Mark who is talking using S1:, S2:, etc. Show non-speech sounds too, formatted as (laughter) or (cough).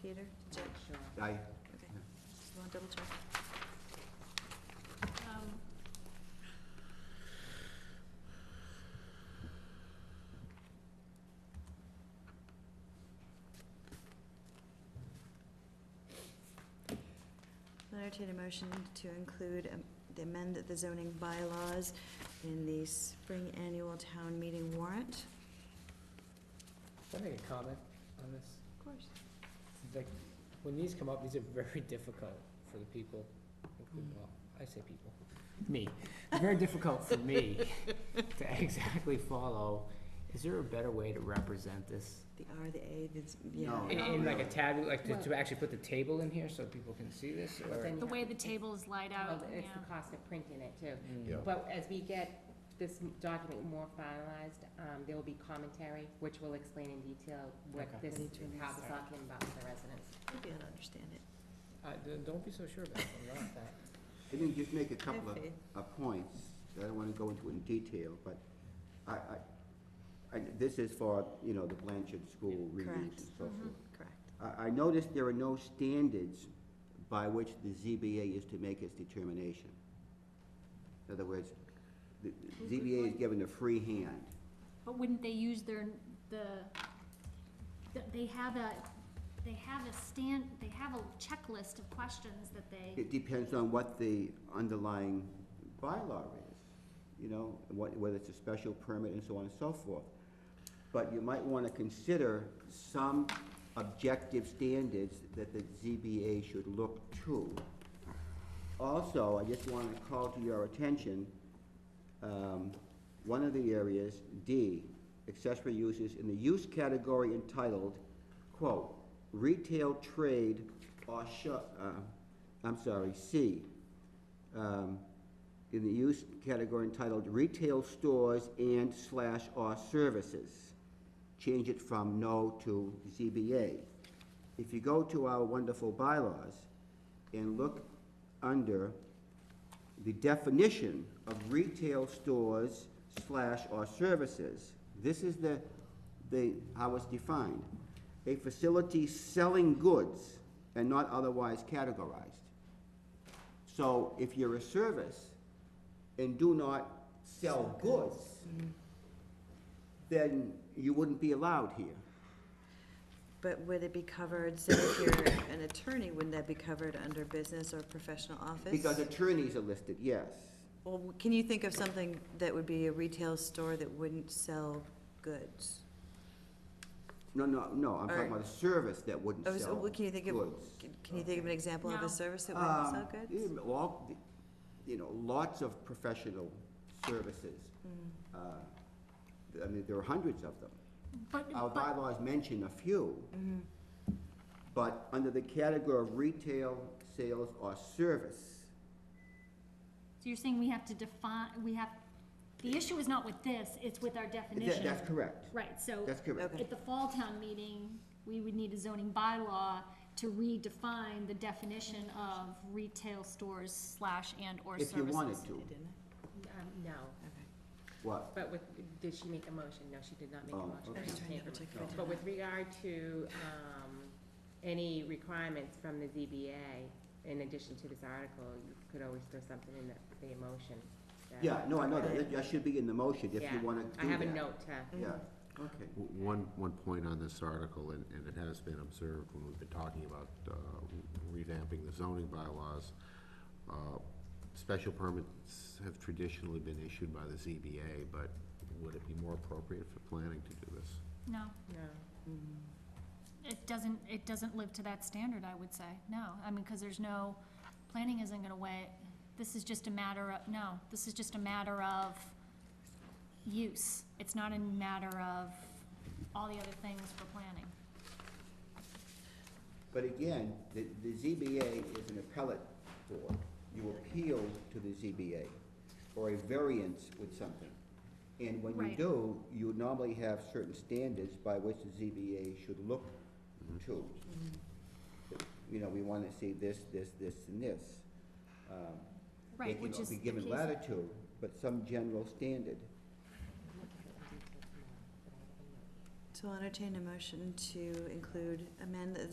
S1: Peter? Did you-
S2: Sure.
S3: I,
S1: Okay, just want to double check.
S2: Um,
S1: I'll entertain a motion to include um, the amend the zoning bylaws in the spring annual town meeting warrant.
S4: Can I make a comment on this?
S1: Of course.
S4: Like, when these come up, these are very (laughs) difficult for the people, including,
S1: Mm.
S4: well, I say people, me. Very difficult for me to (laughs) exactly follow. Is there a better way to represent this?
S1: The R, the A, the, z- yeah.
S3: No.
S4: In, in like a tab, like to, to
S2: Well-
S4: actually put the table in here so people can see this
S2: Well,
S4: or?
S2: then-
S5: The way the tables light
S2: well,
S5: out, yeah.
S2: It's the cost of printing it too.
S4: Mm.
S3: Yeah.
S2: But as we get this document more finalized, um, there will be commentary, which will explain in detail what
S4: Okay.
S2: this,
S1: Ready to
S2: how this all
S4: start.
S2: came about for the residents.
S1: Maybe I'll understand it.
S4: Uh, d- don't be so sure about it, I'm not that.
S3: I didn't just make a
S1: I have
S3: couple of,
S1: faith.
S3: of points, that I don't wanna go into in detail, but I, I, I, this is for, you know, the Blanchard School reviews and
S1: Correct.
S3: so forth.
S1: Correct.
S3: I, I noticed there are no standards by which the ZBA is to make its determination. In other words, the the ZBA is given a free hand.
S5: But wouldn't they use their, the, th- they have a, they have a stand, they have a checklist of questions that they,
S3: It depends on what the underlying bylaw is, you know, what, whether it's a special permit and so on and so forth. But you might wanna consider some objective standards that the ZBA should look to. Also, I just wanna call to your attention, um, one of the areas, D, accessory uses in the use category entitled, quote, retail trade or shop, uh, I'm sorry, C, um, in the use category entitled retail stores and slash or services. Change it from no to ZBA. If you go to our wonderful bylaws and look under the definition of retail stores slash or services. This is the, the, how it's defined. A facility selling goods and not otherwise categorized. So if you're a service and do not sell goods, then you wouldn't be allowed here.
S1: But would it be covered, so if you're an attorney, wouldn't that be covered under business or professional office?
S3: Because attorneys are listed, yes.
S1: Well, w- can you think of something that would be a retail store that wouldn't sell goods?
S3: No, no, no, I'm talking about a service that wouldn't
S1: Oh, so,
S3: sell
S1: well,
S3: goods.
S1: can you think of, can- can you think of an example of
S5: No.
S1: a service that wouldn't
S3: Um,
S1: sell goods?
S3: yeah, well, the- you know, lots of professional services.
S1: Mm-hmm.
S3: Uh, I mean, there are hundreds of them.
S5: but,
S3: Our
S5: but,
S3: bylaws mention a few.
S1: Mm-hmm.
S3: But under the category of retail, sales, or service,
S5: so you're saying we have to define, we have, the issue is not with this, it's with our
S3: that,
S5: definition.
S3: that's correct.
S5: Right, so
S3: That's correct.
S1: Okay.
S5: at the fall town meeting, we would need a zoning bylaw to redefine the definition of retail stores slash and or services.
S3: If you wanted to.
S2: Um, no,
S1: Okay.
S3: What?
S2: but with, did she make a motion? No, she did not make a
S3: Oh,
S2: motion.
S3: okay.
S1: I
S2: She
S1: just
S2: can't
S1: wanted to
S2: make a
S1: check if I
S3: No.
S1: did
S2: But
S1: that.
S2: with regard to, um, any requirements from the ZBA, in addition to this article, you could always throw something in the, the motion. that-
S3: Yeah, no, I know that, that should be in the motion if you
S2: Yeah,
S3: wanna do
S2: I
S3: that.
S2: have a note to,
S3: Yeah, okay.
S6: W- One, one point on this article, and, and it has been observed when we've been talking about uh, revamping the zoning bylaws. uh, Special permits have traditionally been issued by the ZBA, but would it be more appropriate for planning to do this?
S5: No,
S2: no. Mm-hmm.
S5: it doesn't, it doesn't live to that standard, I would say, no, I mean, cause there's no, planning isn't gonna weigh, this is just a matter of, no, this is just a matter of use, it's not a matter of all the other things for planning.
S3: But again, the, the ZBA is an appellate board. You appeal to the ZBA or a variance with something. And when you
S5: Right.
S3: do, you normally have certain standards by which the ZBA should look to. You know, we wanna see this, this, this, and this. Um,
S5: Right, which is the
S3: They can be given
S5: case-
S3: latitude, but some general standard.
S1: So I'll entertain a motion to include amend the